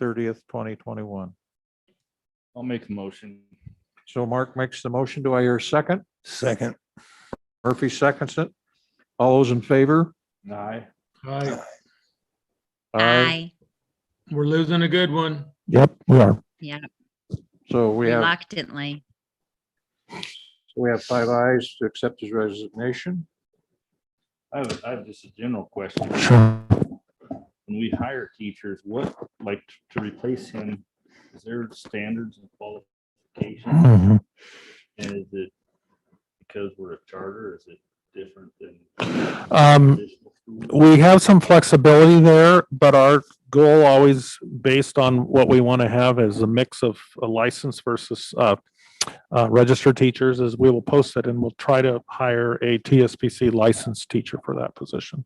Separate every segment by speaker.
Speaker 1: thirtieth, twenty twenty-one.
Speaker 2: I'll make a motion.
Speaker 1: So Mark makes the motion. Do I hear a second?
Speaker 3: Second.
Speaker 1: Murphy seconds it. All those in favor?
Speaker 2: Aye.
Speaker 4: Aye.
Speaker 5: Aye.
Speaker 4: We're losing a good one.
Speaker 3: Yep, we are.
Speaker 1: So we have,
Speaker 5: Reluctantly.
Speaker 1: we have five ayes to accept his resignation.
Speaker 2: I have, I have just a general question.
Speaker 3: Sure.
Speaker 2: When we hire teachers, what, like, to replace him, is there standards and qualifications?
Speaker 3: Mhm.
Speaker 2: And is it because we're a charter, is it different than?
Speaker 3: Um,
Speaker 2: traditional schools?
Speaker 3: We have some flexibility there, but our goal always based on what we want to have is a mix of a license versus uh, uh, registered teachers is we will post it and we'll try to hire a TSPC licensed teacher for that position.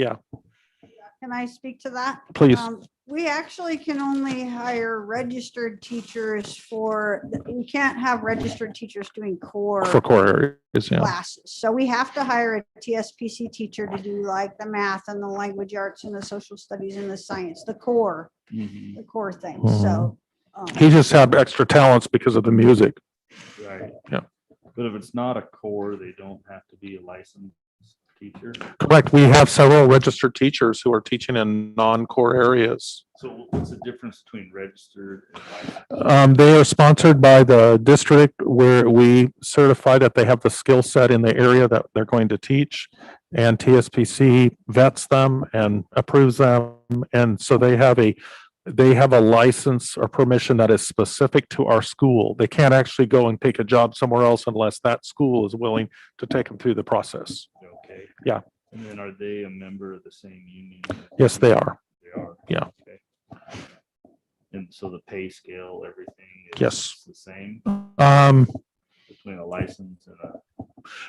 Speaker 6: Can I speak to that?
Speaker 3: Please.
Speaker 6: Um, We actually can only hire registered teachers for, we can't have registered teachers doing core
Speaker 3: For core areas, yeah.
Speaker 6: classes. So we have to hire a TSPC teacher to do like the math and the language arts and the social studies and the science, the core,
Speaker 2: Mhm,
Speaker 6: the core things. so. um,
Speaker 3: Mm-hmm. He just had extra talents because of the music.
Speaker 2: Right.
Speaker 3: Yeah.
Speaker 2: But if it's not a core, they don't have to be a licensed teacher.
Speaker 3: Correct. We have several registered teachers who are teaching in non-core areas.
Speaker 2: So what's the difference between registered and licensed?
Speaker 3: Um, they are sponsored by the district where we certify that they have the skill set in the area that they're going to teach. And TSPC vets them and approves them. And so they have a, they have a license or permission that is specific to our school. They can't actually go and take a job somewhere else unless that school is willing to take them through the process.
Speaker 2: Okay.
Speaker 3: Yeah.
Speaker 2: And then are they a member of the same union?
Speaker 3: Yes, they are.
Speaker 2: They are.
Speaker 3: Yeah.
Speaker 2: Okay. And so the pay scale, everything? is
Speaker 3: Yes.
Speaker 2: The same
Speaker 3: Um,
Speaker 2: between a license and a,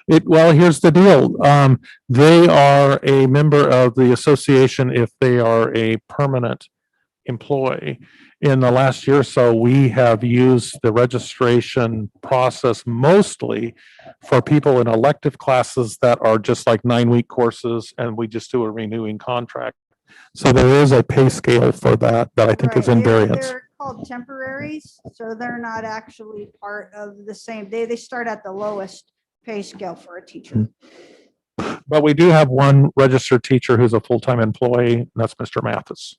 Speaker 3: It, well, here's the deal. Um, they are a member of the association if they are a permanent employee. In the last year or so, we have used the registration process mostly for people in elective classes that are just like nine-week courses and we just do a renewing contract. So there is a pay scale for that, that I think is
Speaker 6: right, they're-
Speaker 3: invariance.
Speaker 6: they're Called temporaries, so they're not actually part of the same, they, they start at the lowest pay scale for a
Speaker 3: Hmm.
Speaker 6: teacher.
Speaker 3: But we do have one registered teacher who's a full-time employee, and that's Mr. Mathis.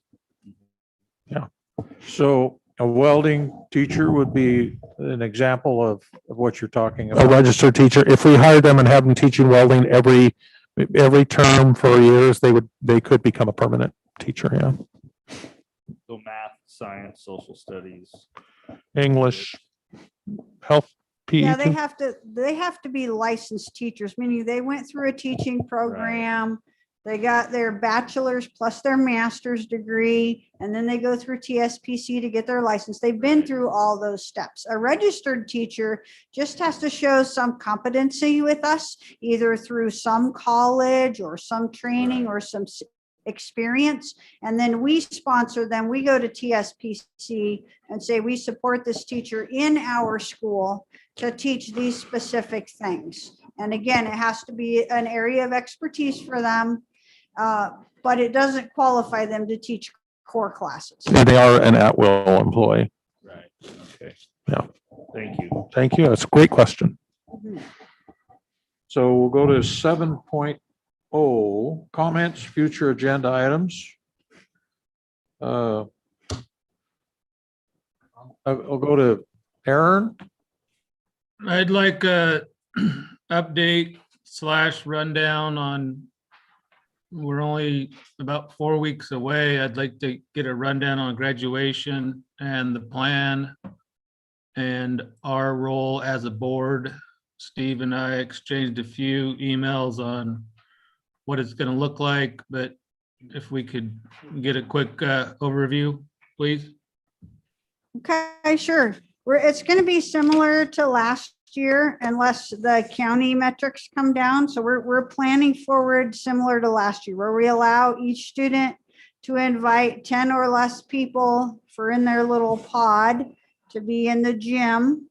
Speaker 1: So a welding teacher would be an example of of what you're talking
Speaker 3: a
Speaker 1: about.
Speaker 3: registered teacher, if we hired them and have them teaching welding every, every term for years, they would, they could become a permanent teacher, yeah.
Speaker 2: so math, science, social studies.
Speaker 3: English, health, E
Speaker 6: Yeah,
Speaker 3: PE,
Speaker 6: they have to, they have to be licensed teachers, meaning they went through a teaching program. They got their bachelor's plus their master's degree, and then they go through TSPC to get their license. They've been through all those steps. A registered teacher just has to show some competency with us, either through some college or some training or some s- experience. And then we sponsor them. We go to TSPC and say, we support this teacher in our school to teach these specific things. And again, it has to be an area of expertise for them, uh, but it doesn't qualify them to teach core classes.
Speaker 3: and they are an at-will employee.
Speaker 2: Right. Okay.
Speaker 3: Yeah.
Speaker 2: Thank you.
Speaker 3: Thank you, that's a great question.
Speaker 6: Mhm.
Speaker 1: So we'll go to seven oh, comments, future agenda items. Uh, I'll I'll go to Aaron.
Speaker 4: I'd like a update slash rundown on, we're only about four weeks away. I'd like to get a rundown on graduation and the plan and our role as a board. Steve and I exchanged a few emails on what it's going to look like, but if we could get a quick uh, overview, please.
Speaker 6: Okay, sure. We're, it's going to be similar to last year unless the county metrics come down. So we're, we're planning forward similar to last year, where we allow each student to invite 10 or less people for in their little pod to be in the gym.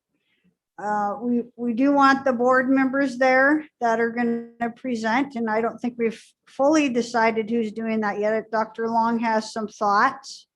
Speaker 6: Uh, We, we do want the board members there that are going to present, and I don't think we've fully decided who's doing that yet. Dr. Long has some thoughts.